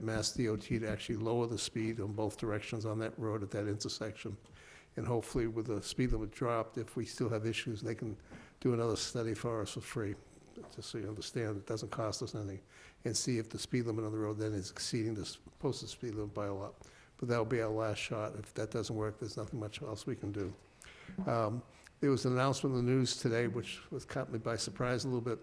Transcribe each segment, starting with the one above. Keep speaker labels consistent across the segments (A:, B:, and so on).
A: Mass DOT to actually lower the speed on both directions on that road at that intersection. And hopefully with the speed limit dropped, if we still have issues, they can do another study for us for free, just so you understand, it doesn't cost us anything. And see if the speed limit on the road then is exceeding the s- posted speed limit by a lot. But that'll be our last shot. If that doesn't work, there's nothing much else we can do. Um, There was an announcement in the news today, which was caught me by surprise a little bit.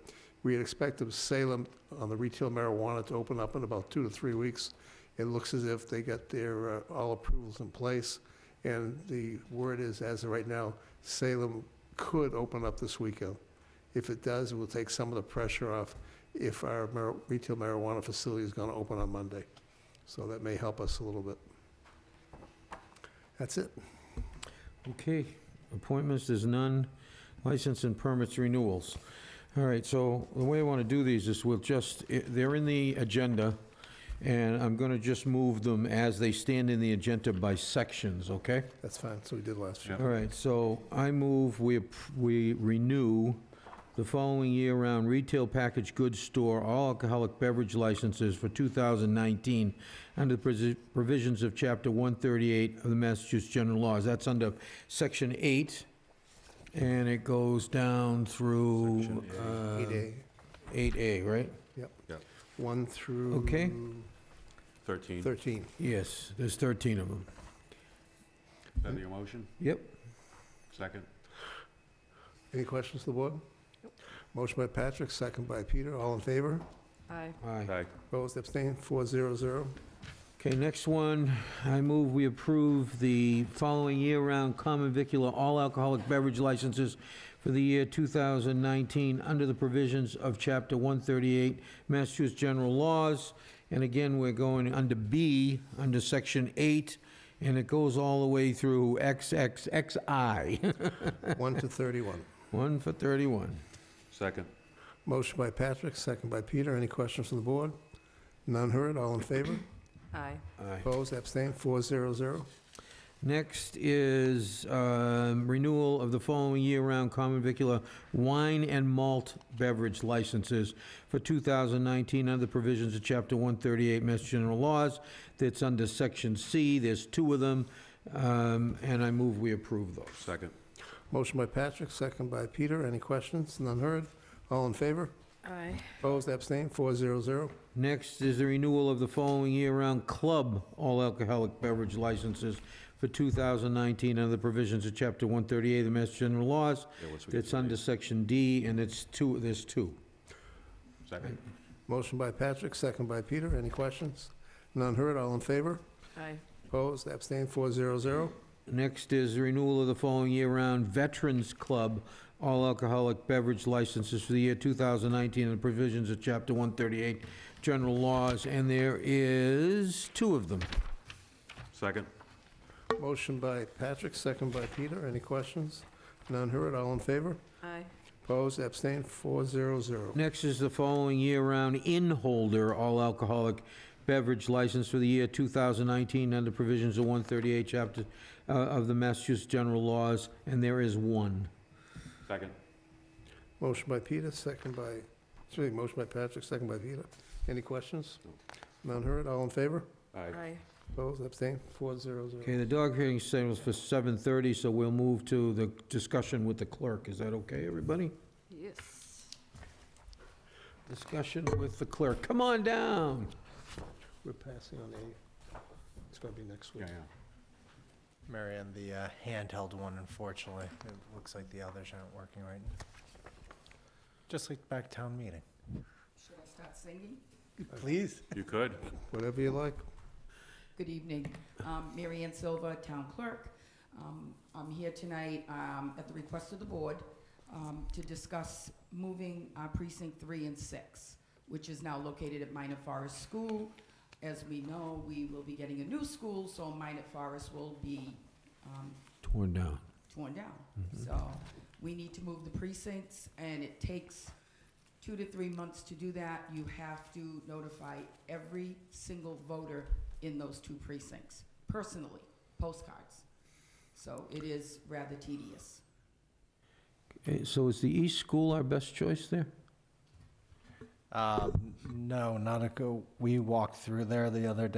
A: We had expected Salem on the retail marijuana to open up in about two to three weeks. It looks as if they got their, uh, all approvals in place, and the word is, as of right now, Salem could open up this weekend. If it does, it will take some of the pressure off if our mar- retail marijuana facility is going to open on Monday. So that may help us a little bit. That's it.
B: Okay, appointments, there's none. License and permits renewals. All right, so the way I want to do these is we'll just, i- they're in the agenda, and I'm going to just move them as they stand in the agenda by sections, okay?
A: That's fine. So we did last year.
B: All right, so I move we, appr- we renew the following year-round retail packaged goods store all alcoholic beverage licenses for 2019 under the presi- provisions of Chapter 138 of the Massachusetts General Laws. That's under Section 8, and it goes down through uh,
A: Eight A,
B: 8A, right?
A: one through.
B: Okay.
C: 13.
A: Thirteen.
B: Yes, there's 13 of them.
C: Is that your motion?
B: Yep.
C: Second?
A: Any questions to the board? Motion by Patrick, second by Peter. All in favor?
D: Aye.
B: Aye.
C: Aye.
A: Opposed, abstained, four zero zero.
B: Okay, next one, I move we approve the following year-round common vicular all alcoholic beverage licenses for the year 2019 under the provisions of Chapter 138 Massachusetts General Laws. And again, we're going under B, under Section 8, and it goes all the way through XXXI.
A: One to thirty-one.
B: 1 for 31.
C: Second?
A: Motion by Patrick, second by Peter. Any questions from the board? None heard, all in favor?
D: Aye.
B: Aye.
A: Opposed, abstained, four zero zero.
B: Next is um, renewal of the following year-round common vicular wine and malt beverage licenses for 2019 under the provisions of Chapter 138 Mass General Laws. That's under Section C. There's two of them, um, and I move we approve those.
C: Second?
A: Motion by Patrick, second by Peter. Any questions? None heard, all in favor?
D: Aye.
A: Opposed, abstained, four zero zero.
B: Next is the renewal of the following year-round club all alcoholic beverage licenses for 2019 under the provisions of Chapter 138 of the Mass General Laws.
C: Yeah, let's- we can
B: That's under
C: debate.
B: Section D, and it's two, there's two.
C: Second?
A: Motion by Patrick, second by Peter. Any questions? None heard, all in favor?
D: Aye.
A: Opposed, abstained, four zero zero.
B: Next is the renewal of the following year-round Veterans Club all alcoholic beverage licenses for the year 2019 and provisions of Chapter 138 General Laws, and there is two of them.
C: Second?
A: Motion by Patrick, second by Peter. Any questions? None heard, all in favor?
D: Aye.
A: Opposed, abstained, four zero zero.
B: Next is the following year-round inn holder all alcoholic beverage license for the year 2019 under provisions of 138 Chapter uh, of the Massachusetts General Laws, and there is one.
C: Second?
A: Motion by Peter, second by, excuse me, motion by Patrick, second by Peter. Any questions? None heard, all in favor?
C: Aye.
D: Aye.
A: Opposed, abstained, four zero zero.
B: Okay, the dog hearing signal's for 7:30, so we'll move to the discussion with the clerk. Is that okay, everybody?
D: Yes.
B: Discussion with the clerk. Come on down.
A: We're passing on eight. It's gonna be next week.
C: Yeah, yeah.
E: Marion, the uh, handheld one, unfortunately. It looks like the others aren't working right. Just like back town meeting.
F: Should I start singing?
E: Please.
C: You could.
A: Whatever you like.
F: Good evening. Um, Mary Ann Silva, Town Clerk. Um, I'm here tonight um, at the request of the board um, to discuss moving uh, precinct three and six, which is now located at Minot Forest School. As we know, we will be getting a new school, so Minot Forest will be um,
B: Torn down.
F: torn down. So we need to move the precincts, and it takes two to three months to do that. You have to notify every single voter in those two precincts, personally, postcards. So it is rather tedious.
B: Eh, Okay, So is the East School our best choice there?
E: Uh, Um, No, not a, go- we walked through there the other day.